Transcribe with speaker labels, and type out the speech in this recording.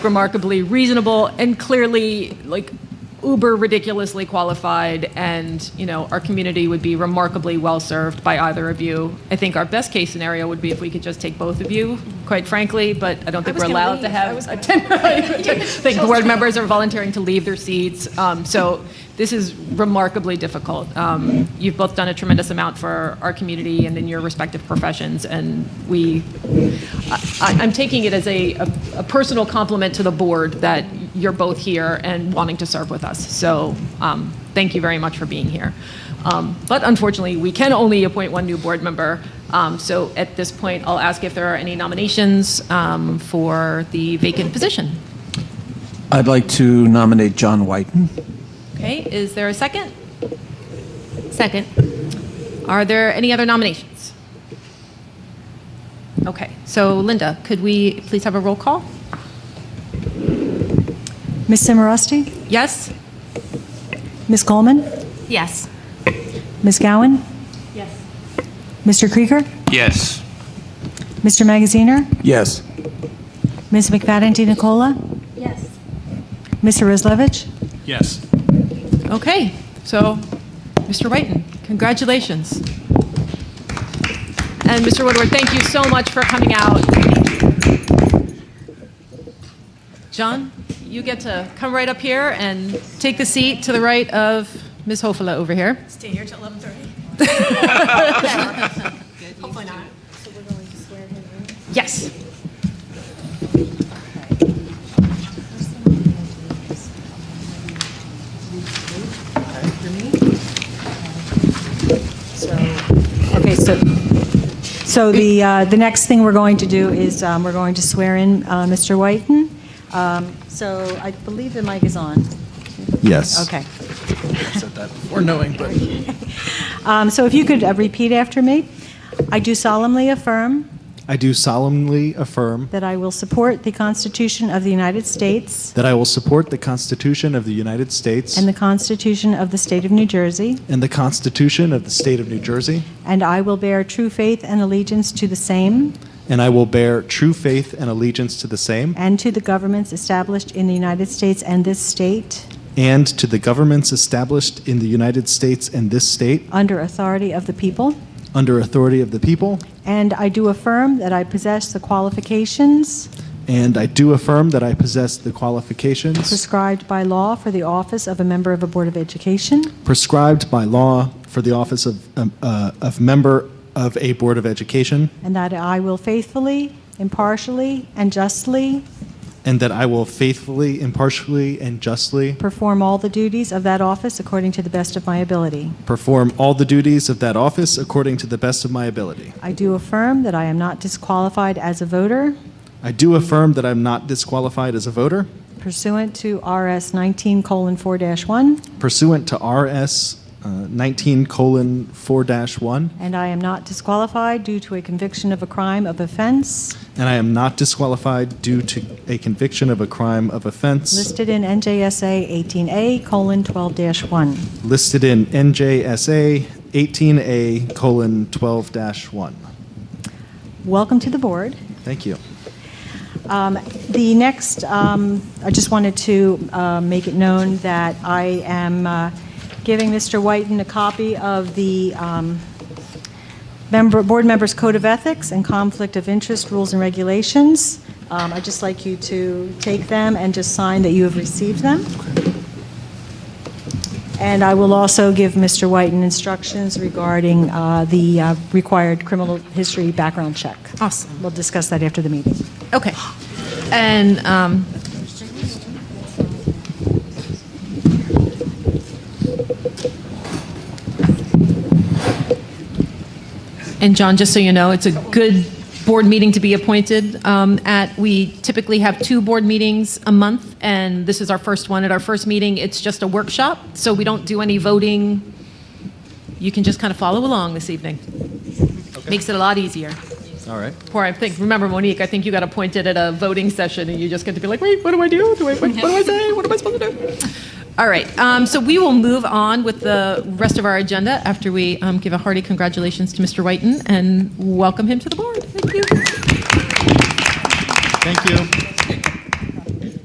Speaker 1: remarkably reasonable and clearly like uber ridiculously qualified and you know our community would be remarkably well served by either of you i think our best case scenario would be if we could just take both of you quite frankly but i don't think
Speaker 2: was
Speaker 1: we're
Speaker 2: gonna
Speaker 1: allowed to
Speaker 2: leave. I
Speaker 1: have
Speaker 2: was
Speaker 1: a 10 i think board members are volunteering to leave their seats um, so this is remarkably difficult um, you've both done a tremendous amount for our community and in your respective professions and we I- I'm taking it as a, a- a personal compliment to the board that you're both here and wanting to serve with us. So um, thank you very much for being here. Um, But unfortunately, we can only appoint one new board member. Um, So at this point, I'll ask if there are any nominations um, for the vacant position.
Speaker 3: I'd like to nominate John Whiten.
Speaker 1: Okay, is there a second?
Speaker 2: Second.
Speaker 1: Are there any other nominations? Okay, so Linda, could we please have a roll call?
Speaker 4: Ms. Simarosti?
Speaker 1: Yes?
Speaker 4: Ms. Coleman?
Speaker 2: Yes.
Speaker 4: Ms. Gowan? Yes. Mr. Krieger?
Speaker 5: Yes.
Speaker 4: Mr. Magaziner?
Speaker 3: Yes.
Speaker 4: Ms. McFadden Nicola? Yes. Mr. Rizlevich?
Speaker 5: Yes.
Speaker 1: Okay, so, Mr. Whiten, congratulations. And Mr. Woodward, thank you so much for coming out. John, you get to come right up here and take the seat to the right of Ms. Hofela over here.
Speaker 6: Stay here till 11:30. Hopefully not.
Speaker 1: Yes.
Speaker 4: Okay, so, so the, uh, the next thing we're going to do is, um, we're going to swear in uh, Mr. Whiten. Um, So I believe the mic is on.
Speaker 7: Yes.
Speaker 4: Okay.
Speaker 3: Or knowing, but.
Speaker 4: Um, So if you could uh, repeat after me. I do solemnly affirm
Speaker 7: I do solemnly affirm
Speaker 4: that I will support the Constitution of the United States
Speaker 7: that I will support the Constitution of the United States
Speaker 4: and the Constitution of the State of New Jersey,
Speaker 7: and the Constitution of the State of New Jersey,
Speaker 4: And I will bear true faith and allegiance to the same
Speaker 7: and I will bear true faith and allegiance to the same
Speaker 4: and to the governments established in the United States and this state
Speaker 7: and to the governments established in the United States and this state
Speaker 4: under authority of the people.
Speaker 7: under authority of the people.
Speaker 4: And I do affirm that I possess the qualifications
Speaker 7: And I do affirm that I possess the qualifications
Speaker 4: prescribed by law for the office of a member of a Board of Education.
Speaker 7: prescribed by law for the office of, um, uh, of member of a Board of Education,
Speaker 4: And that I will faithfully, impartially, and justly
Speaker 7: and that I will faithfully, impartially, and justly
Speaker 4: perform all the duties of that office according to the best of my ability.
Speaker 7: Perform all the duties of that office according to the best of my ability.
Speaker 4: I do affirm that I am not disqualified as a voter
Speaker 7: I do affirm that I'm not disqualified as a voter
Speaker 4: pursuant to RS 19:4-1.
Speaker 7: pursuant to RS 19 colon 4 1,
Speaker 4: And I am not disqualified due to a conviction of a crime of offense
Speaker 7: and I am not disqualified due to a conviction of a crime of offense
Speaker 4: listed in NJSA 18A colon 12-1.
Speaker 7: listed in NJSA 18A colon 12 1.
Speaker 4: Welcome to the board.
Speaker 7: Thank you.
Speaker 4: Um, The next, um, I just wanted to uh, make it known that I am uh, giving Mr. Whiten a copy of the um, member, Board Members Code of Ethics and Conflict of Interest Rules and Regulations. Um, I'd just like you to take them and just sign that you have received them. And I will also give Mr. Whiten instructions regarding uh, the uh, required criminal history background check.
Speaker 1: Awesome.
Speaker 4: We'll discuss that after the meeting.
Speaker 1: Okay. And, um, and John, just so you know, it's a good board meeting to be appointed um, at. We typically have two board meetings a month, and this is our first one. At our first meeting, it's just a workshop, so we don't do any voting. You can just kind of follow along this evening. Makes it a lot easier.
Speaker 7: All right.
Speaker 1: Poor, I think, remember Monique, I think you got appointed at a voting session and you just get to be like, wait, what do I do? Do I, what, what do I say? What am I supposed to do? All right, um, so we will move on with the rest of our agenda after we um, give a hearty congratulations to Mr. Whiten and welcome him to the board. Thank you.
Speaker 7: Thank you.